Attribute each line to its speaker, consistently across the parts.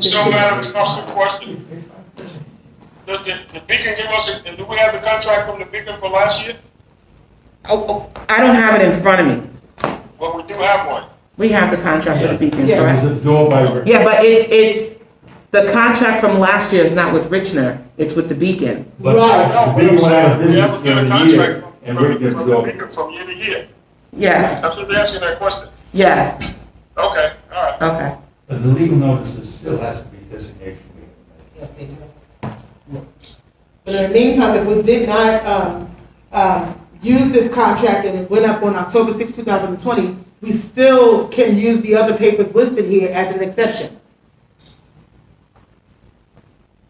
Speaker 1: So, Madam Council, question. Does the, the Beacon give us, a- and do we have the contract from the Beacon for last year?
Speaker 2: Oh, oh, I don't have it in front of me.
Speaker 1: Well, we do have one.
Speaker 2: We have the contract with the Beacon,
Speaker 3: Yes.
Speaker 2: correct?
Speaker 4: It's absorbed by,
Speaker 2: Yeah, but it's, it's, the contract from last year is not with Richner, it's with the Beacon.
Speaker 4: but we went out of
Speaker 1: We have
Speaker 4: business
Speaker 1: to get
Speaker 4: during
Speaker 1: a
Speaker 4: the year,
Speaker 1: contract
Speaker 4: and
Speaker 1: from-
Speaker 4: Rick gets
Speaker 1: From the
Speaker 4: absorbed.
Speaker 1: Beacon from year to year.
Speaker 2: Yes,
Speaker 1: I'm just asking that question.
Speaker 2: yes,
Speaker 1: Okay, all right.
Speaker 2: okay.
Speaker 4: But the legal notices still has to be designated.
Speaker 3: Yes, they do. But in the meantime, if we did not, um, um, use this contract and it went up on October sixth, two thousand and twenty, we still can use the other papers listed here as an exception.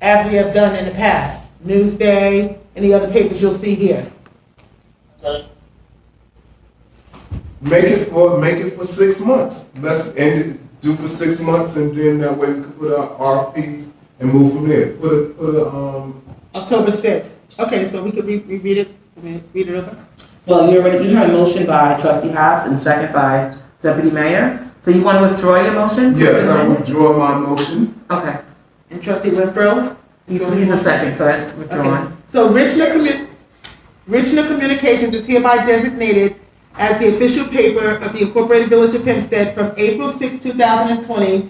Speaker 3: As we have done in the past, Newsday, any other papers you'll see here.
Speaker 1: Okay.
Speaker 5: Make it for, make it for six months. Let's end it, do for six months and then that way we can put our RFPs and move from there. Put a, put a, um,
Speaker 3: October sixth. Okay, so we could re- reread it, re- read it over?
Speaker 2: Well, you already, you had a motion by trustee Hobbs and second by deputy mayor. So you want to withdraw your motion?
Speaker 5: yes, I withdraw my motion.
Speaker 2: Okay,
Speaker 3: And trustee Renfro?
Speaker 2: he's, he's the second, so that's withdrawn.
Speaker 3: Okay. So Richland Commu, Richland Communications is hereby designated as the official paper of the Incorporated Village of Hempstead from April 6, 2020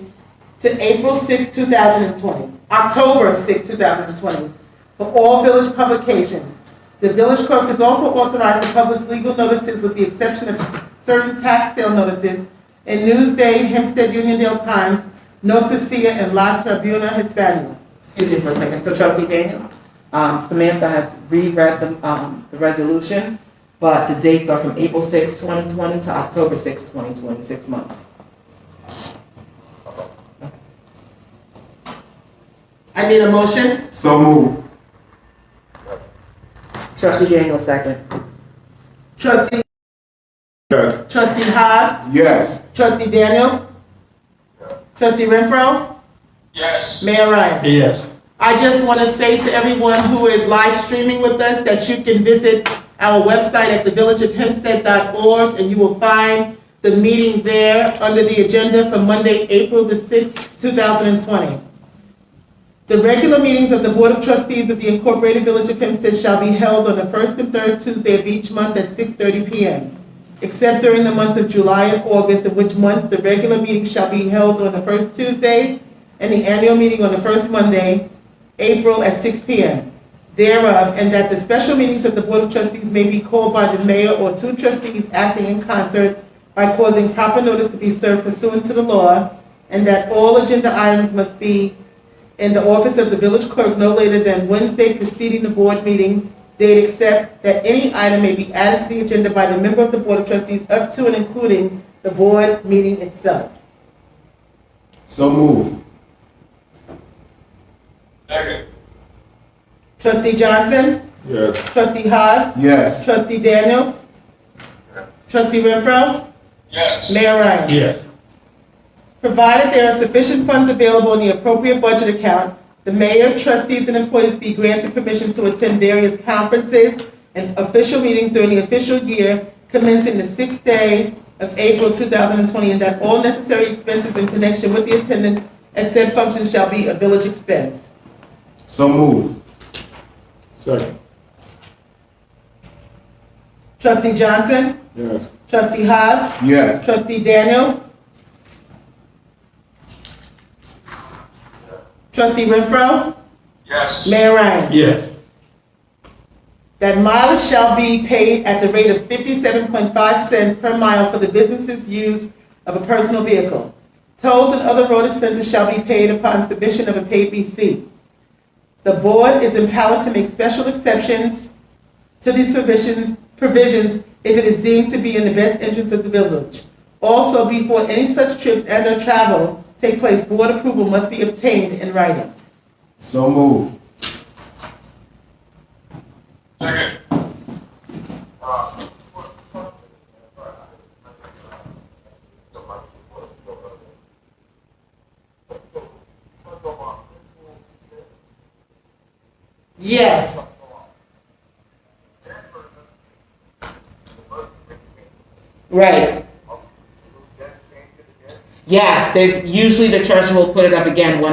Speaker 3: to April 6, 2020, October 6, 2020, for all village publications. The village clerk is also authorized to publish legal notices with the exception of certain tax sale notices in Newsday, Hempstead Uniondale Times, Noticia, and La Tribuna Hispania.
Speaker 2: Excuse me for a second, so trustee Daniels, um, Samantha has reread the, um, the resolution, but the dates are from April sixth, twenty twenty to October sixth, twenty twenty, six months.
Speaker 3: I need a motion?
Speaker 5: So move.
Speaker 2: Trustee Daniels, second.
Speaker 3: Trustee,
Speaker 4: Yes.
Speaker 3: trustee Hobbs,
Speaker 5: Yes.
Speaker 3: trustee Daniels, trustee Renfro,
Speaker 1: Yes.
Speaker 3: Mayor Ryan.
Speaker 4: Yes.
Speaker 3: I just want to say to everyone who is live streaming with us that you can visit our website at thevillageofhempstead.org and you will find the meeting there under the agenda for Monday, April the 6th, 2020. The regular meetings of the Board of Trustees of the Incorporated Village of Hempstead shall be held on the first and third Tuesday of each month at 6:30 PM, except during the months of July and August, in which months the regular meeting shall be held on the first Tuesday and the annual meeting on the first Monday, April at 6 PM thereof, and that the special meetings of the Board of Trustees may be called by the mayor or two trustees acting in concert by causing proper notice to be served pursuant to the law, and that all agenda items must be in the office of the village clerk no later than Wednesday preceding the board meeting date, except that any item may be added to the agenda by the member of the board of trustees up to and including the board meeting itself.
Speaker 5: So move.
Speaker 1: Second.
Speaker 3: Trustee Johnson?
Speaker 4: Yes.
Speaker 3: Trustee Hobbs?
Speaker 5: Yes.
Speaker 3: Trustee Daniels? Trustee Renfro?
Speaker 1: Yes.
Speaker 3: Mayor Ryan?
Speaker 4: Yes.
Speaker 3: Provided there are sufficient funds available in the appropriate budget account, the mayor, trustees, and employees be granted permission to attend various conferences and official meetings during the official year commencing the sixth day of April 2020, and that all necessary expenses in connection with the attendance at said function shall be a village expense.
Speaker 5: So move.
Speaker 4: Second.
Speaker 3: Trustee Johnson?
Speaker 4: Yes.
Speaker 3: Trustee Hobbs?
Speaker 5: Yes.
Speaker 3: Trustee Daniels? Trustee Renfro?
Speaker 1: Yes.
Speaker 3: Mayor Ryan?
Speaker 4: Yes.
Speaker 3: That mileage shall be paid at the rate of 57.5 cents per mile for the business's use of a personal vehicle. Tolls and other road expenses shall be paid upon submission of a paid receipt. The board is empowered to make special exceptions to these provisions, provisions if it is deemed to be in the best interest of the village. Also, before any such trips and/or travel take place, board approval must be obtained in writing.
Speaker 5: So move.
Speaker 1: Second.
Speaker 3: Yes.
Speaker 2: Right. Yes, they, usually the treasurer will put it up again when